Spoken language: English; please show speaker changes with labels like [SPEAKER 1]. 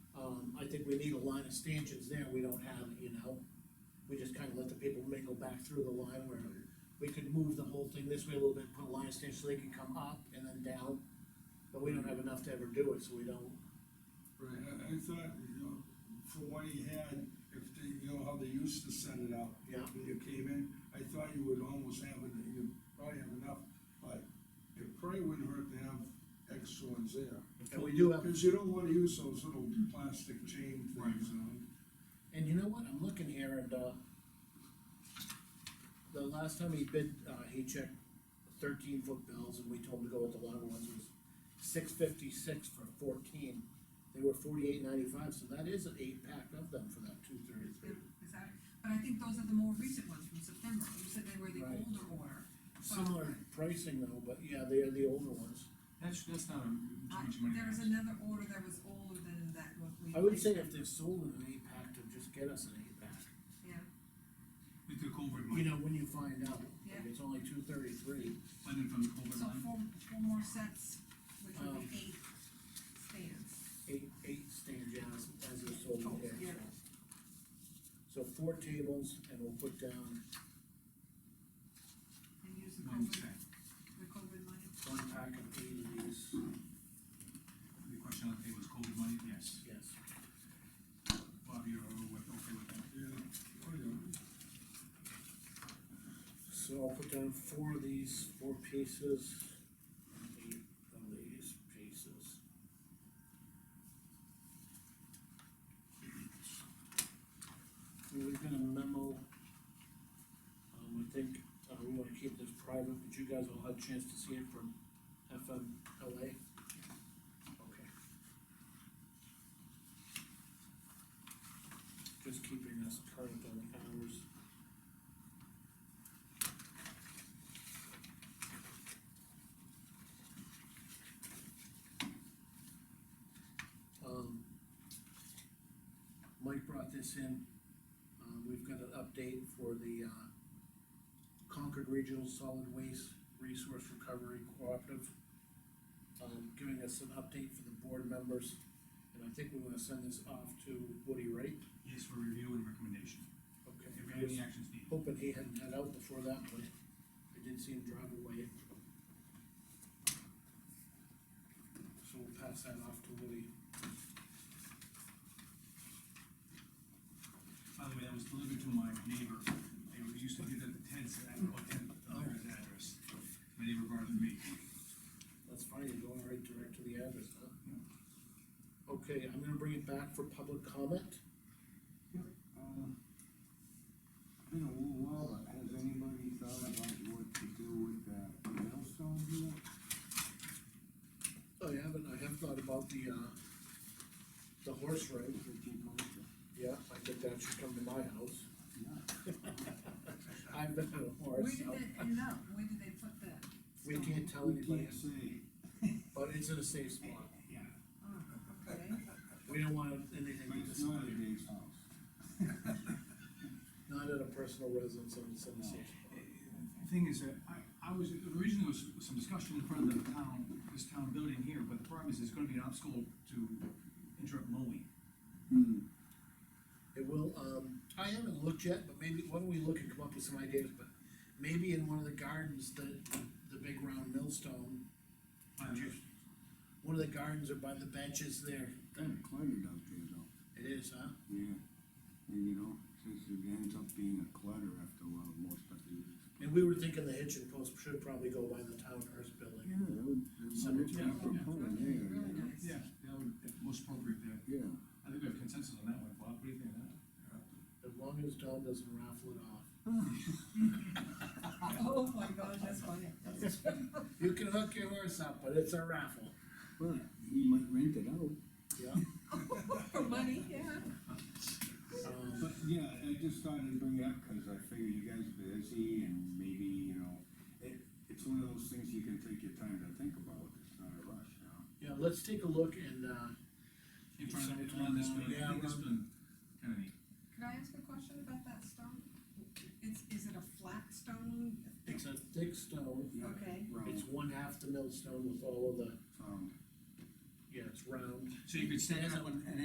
[SPEAKER 1] Um, we need a line of stanchions there, we don't have it, you know? We just kinda let the people mingle back through the line where we could move the whole thing this way a little bit, put a line of stanchions so they can come up and then down. But we don't have enough to ever do it, so we don't,
[SPEAKER 2] Right, I, I thought, you know, for what he had, if they, you know, how they used to set it up.
[SPEAKER 1] Yeah.
[SPEAKER 2] When you came in, I thought you would almost have it, you probably have enough, but it probably wouldn't hurt to have extra ones there.
[SPEAKER 1] and we do have
[SPEAKER 2] Cause you don't wanna use those little plastic chain things, you know?
[SPEAKER 1] And you know what, I'm looking here and, uh, the last time he bid, uh, he checked thirteen foot bills and we told him to go with the longer ones was six fifty-six for fourteen. They were forty-eight ninety-five, so that is an eight pack of them for that two thirty-three.
[SPEAKER 3] Is that, but I think those are the more recent ones from September, you said they were the
[SPEAKER 1] Right.
[SPEAKER 3] older order.
[SPEAKER 1] Similar pricing though, but yeah, they are the older ones.
[SPEAKER 4] That's, that's not a
[SPEAKER 3] Uh,
[SPEAKER 4] huge money.
[SPEAKER 3] There was another order that was older than that one we.
[SPEAKER 1] I would say if they're sold in an eight pack, to just get us an eight pack.
[SPEAKER 3] Yeah,
[SPEAKER 4] With the culvert
[SPEAKER 1] You
[SPEAKER 4] money,
[SPEAKER 1] know, when you find out,
[SPEAKER 3] Yeah.
[SPEAKER 1] if it's only two thirty-three,
[SPEAKER 4] funding from the culvert
[SPEAKER 3] so
[SPEAKER 4] line.
[SPEAKER 3] four, four more sets, which would
[SPEAKER 1] Um,
[SPEAKER 3] be eight stands.
[SPEAKER 1] eight, eight stand jobs as they're sold
[SPEAKER 3] Oh,
[SPEAKER 1] there,
[SPEAKER 3] yeah.
[SPEAKER 1] so. So four tables and we'll put down
[SPEAKER 3] And use the
[SPEAKER 4] One
[SPEAKER 3] COVID,
[SPEAKER 4] sec,
[SPEAKER 3] the COVID money.
[SPEAKER 1] one pack of eight of these,
[SPEAKER 4] the question on the table is culvert money, yes.
[SPEAKER 1] yes.
[SPEAKER 4] Bob, you're with- okay with that?
[SPEAKER 2] Yeah, oh yeah.
[SPEAKER 1] So I'll put down four of these, four pieces, eight of these pieces. We're gonna memo, um, I think, uh, we wanna keep this private, but you guys will have a chance to see it from FMLA. Okay. Just keeping us current on the hours. Um, Mike brought this in, um, we've got an update for the, uh, Concord Regional Solid Waste Resource Recovery Cooperative. Um, giving us an update for the board members, and I think we're gonna send this off to Woody, right?
[SPEAKER 4] Yes, for review and recommendation.
[SPEAKER 1] Okay.
[SPEAKER 4] If any actions needed.
[SPEAKER 1] Hoping he hadn't got out before that, but I did see him drive away. So we'll pass that off to Woody.
[SPEAKER 4] By the way, that was delivered to my neighbor. They were used to do that at Ted's, I don't know what Ted, uh, his address. My neighbor brought it to me.
[SPEAKER 1] That's fine, you're going right direct to the address, huh? Okay, I'm gonna bring it back for public comment.
[SPEAKER 2] Uh,
[SPEAKER 5] Um, Been a little while, but has anybody thought about what to do with that millstone here?
[SPEAKER 1] I haven't, I have thought about the, uh, the horse ring.
[SPEAKER 5] That you go to?
[SPEAKER 1] Yeah, I think that should come to my house.
[SPEAKER 5] Yeah,
[SPEAKER 1] I've been on a
[SPEAKER 3] Where
[SPEAKER 1] horse,
[SPEAKER 3] did
[SPEAKER 1] so
[SPEAKER 3] they end up, where did they put that?
[SPEAKER 1] we
[SPEAKER 3] stone?
[SPEAKER 1] can't tell
[SPEAKER 5] we
[SPEAKER 1] anybody,
[SPEAKER 5] can't say.
[SPEAKER 1] but it's in a safe spot.
[SPEAKER 4] Yeah.
[SPEAKER 3] Oh, okay,
[SPEAKER 1] We don't want anything
[SPEAKER 5] But
[SPEAKER 1] to
[SPEAKER 5] it's not a
[SPEAKER 1] disappear,
[SPEAKER 5] big house.
[SPEAKER 1] not at a personal residence and it's in a safe spot.
[SPEAKER 4] The Thing is, that I, I was, originally there was some discussion in front of the town, this town building here, but the problem is, it's gonna be an obstacle to interrupt mowing.
[SPEAKER 5] Hmm,
[SPEAKER 1] It will, um, I haven't looked yet, but maybe, why don't we look and come up with some ideas, but maybe in one of the gardens, the, the big round millstone.
[SPEAKER 4] By the-
[SPEAKER 1] One of the gardens or by the benches there,
[SPEAKER 5] kinda cluttered up there though.
[SPEAKER 1] it is, huh?
[SPEAKER 5] Yeah, and you know, since it ends up being a clutter after a while, more stuff is.
[SPEAKER 1] And we were thinking the hitching post should probably go by the town nurse building.
[SPEAKER 5] Yeah, that would, that would,
[SPEAKER 1] Cemetery,
[SPEAKER 5] yeah,
[SPEAKER 3] yeah. really
[SPEAKER 5] yeah,
[SPEAKER 3] nice.
[SPEAKER 4] Yeah, that would, that's most appropriate there.
[SPEAKER 5] yeah.
[SPEAKER 4] I think we have consensus on that one, Bob, what do you think of that?
[SPEAKER 1] As long as Tom doesn't raffle it off.
[SPEAKER 3] oh my gosh, that's funny, that's
[SPEAKER 1] You can hook your horse up, but it's a raffle.
[SPEAKER 5] Well, you might rent it out.
[SPEAKER 1] Yeah.
[SPEAKER 3] for money, yeah.
[SPEAKER 1] Um,
[SPEAKER 5] But, yeah, I just thought I'd bring it up, cause I figure you guys are busy and maybe, you know, it, it's one of those things you can take your time to think about, it's not a rush, you know?
[SPEAKER 1] yeah, let's take a look and, uh,
[SPEAKER 4] In front of, around this building, I think this building, kinda neat.
[SPEAKER 3] Could I ask a question about that stone? It's, is it a flat stone?
[SPEAKER 1] it's a thick stone.
[SPEAKER 5] Yeah,
[SPEAKER 3] Okay.
[SPEAKER 1] It's one
[SPEAKER 5] Round,
[SPEAKER 1] half the millstone with all of the,
[SPEAKER 5] found.
[SPEAKER 1] yeah, it's round.
[SPEAKER 4] So you could stand up and, and